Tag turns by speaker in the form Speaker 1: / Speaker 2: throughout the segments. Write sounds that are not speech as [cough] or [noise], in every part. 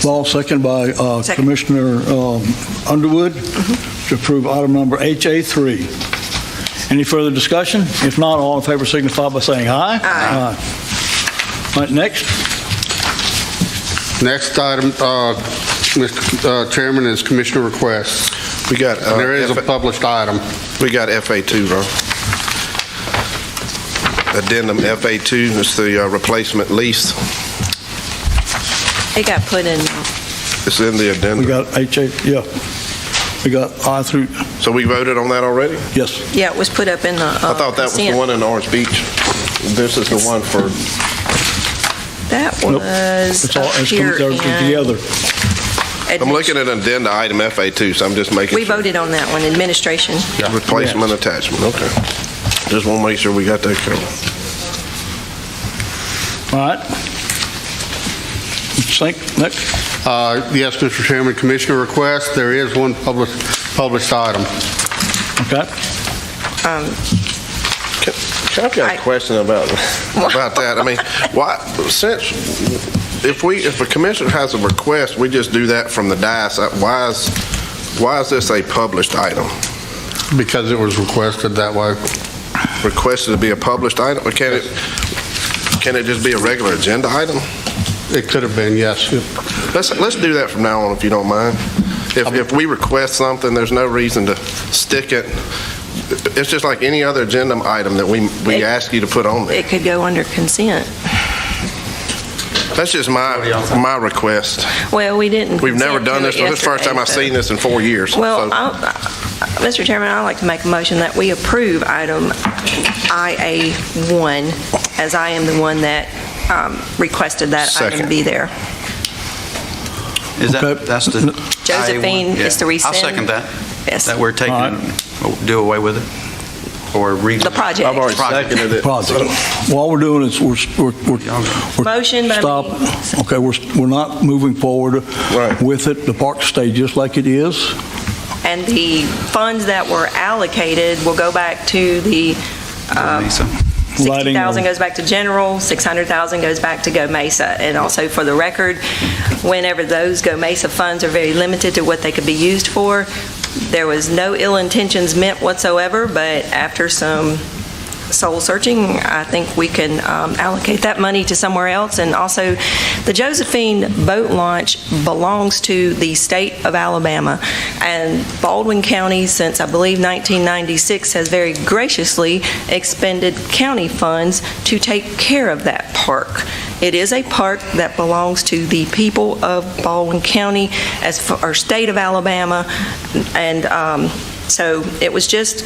Speaker 1: Small, second by uh,
Speaker 2: Second.
Speaker 1: Commissioner um, Underwood to approve item number HA3. Any further discussion? If not, all in favor signify by saying aye. Aye. All right, next.
Speaker 3: Next item, uh, Mr. Chairman, is commissioner requests.
Speaker 4: We got, uh,
Speaker 3: And there is a
Speaker 4: F-
Speaker 3: published item.
Speaker 4: we got FA2, bro. Addendum FA2 is the uh, replacement lease.
Speaker 2: It got put in,
Speaker 4: It's in the
Speaker 1: We
Speaker 4: addendum.
Speaker 1: got HA, yeah. We got I through,
Speaker 4: So we voted on that already?
Speaker 1: yes.
Speaker 2: yeah, it was put up in the. uh,
Speaker 4: I thought that was the one in Orange Beach. This is the one for,
Speaker 2: That
Speaker 1: Nope.
Speaker 2: was
Speaker 1: It's all,
Speaker 2: up
Speaker 1: it's
Speaker 2: here
Speaker 1: everything
Speaker 2: in.
Speaker 1: together.
Speaker 4: I'm looking at addenda item FA2, so I'm just making
Speaker 2: We
Speaker 4: sure.
Speaker 2: voted on that one, administration.
Speaker 4: Replacement attachment, okay. Just want to make sure we got that covered.
Speaker 1: All right. Sink, next.
Speaker 3: Uh, Yes, Mr. Chairman, commissioner requests, there is one published, published item.
Speaker 1: Okay.
Speaker 2: Um,
Speaker 4: I've got
Speaker 2: I-
Speaker 4: a question about, about that. I mean, why, since, if we, if a commissioner has a request, we just do that from the dais. Uh, Why is, why is this a published item?
Speaker 3: Because it was requested that way.
Speaker 4: Requested to be a published item? Or Can it, can it just be a regular agenda item?
Speaker 3: It could have been, yes.
Speaker 4: Let's, let's do that from now on, if you don't mind. If, if we request something, there's no reason to stick it. It's just like any other agenda item that we, we ask you to put on there.
Speaker 2: It could go under consent.
Speaker 4: That's just my, my request.
Speaker 2: Well, we didn't.
Speaker 4: We've never
Speaker 2: consent
Speaker 4: done
Speaker 2: to
Speaker 4: this.
Speaker 2: it
Speaker 4: This is the first
Speaker 2: yesterday,
Speaker 4: time I've
Speaker 2: but-
Speaker 4: seen this in four years.
Speaker 2: Well,
Speaker 4: So-
Speaker 2: I'll- I- Mr. Chairman, I'd like to make a motion that we approve item IA1, as I am the one that um, requested that item
Speaker 4: Second.
Speaker 2: be there.
Speaker 5: Is that,
Speaker 1: Okay.
Speaker 5: that's the...
Speaker 2: Josephine
Speaker 5: IA1?
Speaker 2: is to
Speaker 5: Yeah.
Speaker 2: rescind.
Speaker 5: I'll second that.
Speaker 2: Yes.
Speaker 5: That we're taking,
Speaker 1: All
Speaker 5: it, do away with it, or re...
Speaker 2: The project. I've already
Speaker 4: seconded it.
Speaker 1: project. Well, All we're doing is we're, we're, we're. we're-
Speaker 2: Motion by me.
Speaker 1: Stop. Okay, we're, we're not moving forward
Speaker 4: Right.
Speaker 1: with it. The park stays just like it is.
Speaker 2: And the funds that were allocated will go back to the, um,
Speaker 5: Mesa.
Speaker 1: Lighting
Speaker 2: 60,000
Speaker 1: or-
Speaker 2: goes back to general, 600,000 goes back to Go Mesa. And also for the record, whenever those Go Mesa funds are very limited to what they could be used for, there was no ill intentions meant whatsoever, but after some soul searching, I think we can um, allocate that money to somewhere else. And also, the Josephine boat launch belongs to the state of Alabama. And Baldwin County, since I believe 1996, has very graciously expended county funds to take care of that park. It is a park that belongs to the people of Baldwin County, as far, or state of Alabama. And um, so it was just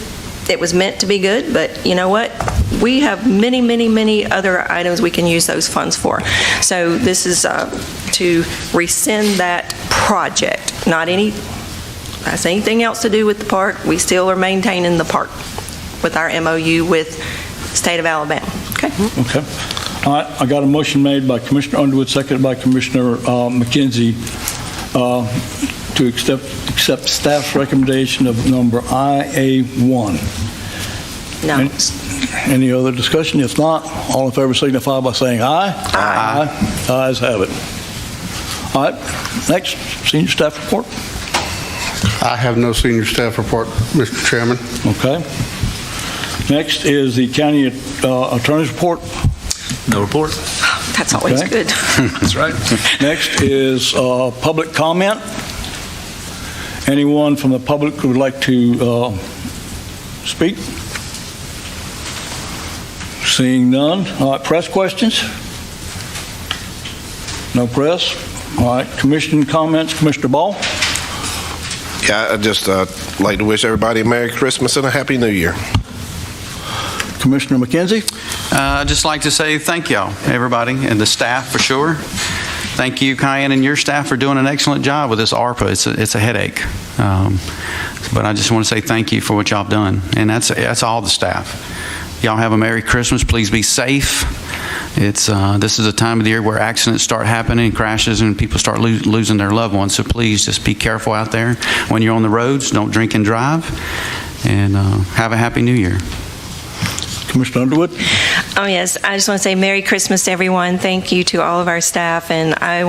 Speaker 2: it was meant to be good, but you know what? We have many, many, many other items we can use those funds for. So this is uh, to rescind that project, not any, has anything else to do with the park. We still are maintaining the park with our MOU with State of Alabama. Okay?
Speaker 1: Okay. All right, I got a motion made by Commissioner Underwood, seconded by Commissioner uh, McKenzie uh, to accept, accept staff's recommendation of number IA1.
Speaker 2: No.
Speaker 1: Any- Any other discussion? If not, all in favor signify by saying aye. Aye. Ayes have it. All right, next, senior staff report.
Speaker 3: I have no senior staff report, Mr. Chairman.
Speaker 1: Okay. Next is the county uh, attorney's report.
Speaker 6: No report.
Speaker 2: That's always
Speaker 1: Okay.
Speaker 2: good. [laughs]
Speaker 6: That's right.
Speaker 1: Next is uh, public comment. Anyone from the public who would like to uh, speak? Seeing none. All right, press questions? No press? All right, commission comments, Commissioner Ball?
Speaker 4: Yeah, I just uh, like to wish everybody a Merry Christmas and a Happy New Year.
Speaker 1: Commissioner McKenzie?
Speaker 5: Uh, I'd just like to say thank y'all, everybody, and the staff for sure. Thank you, Kyan, and your staff for doing an excellent job with this ARPA. It's a, it's a headache. Um, But I just want to say thank you for what y'all have done, and that's, that's all the staff. Y'all have a Merry Christmas. Please be safe. It's, uh, this is a time of the year where accidents start happening, crashes, and people start lo- losing their loved ones. So please just be careful out there. When you're on the roads, don't drink and drive, and uh, have a Happy New Year.
Speaker 1: Commissioner Underwood?
Speaker 2: Oh, yes, I just want to say Merry Christmas to everyone. Thank you to all of our staff, and I want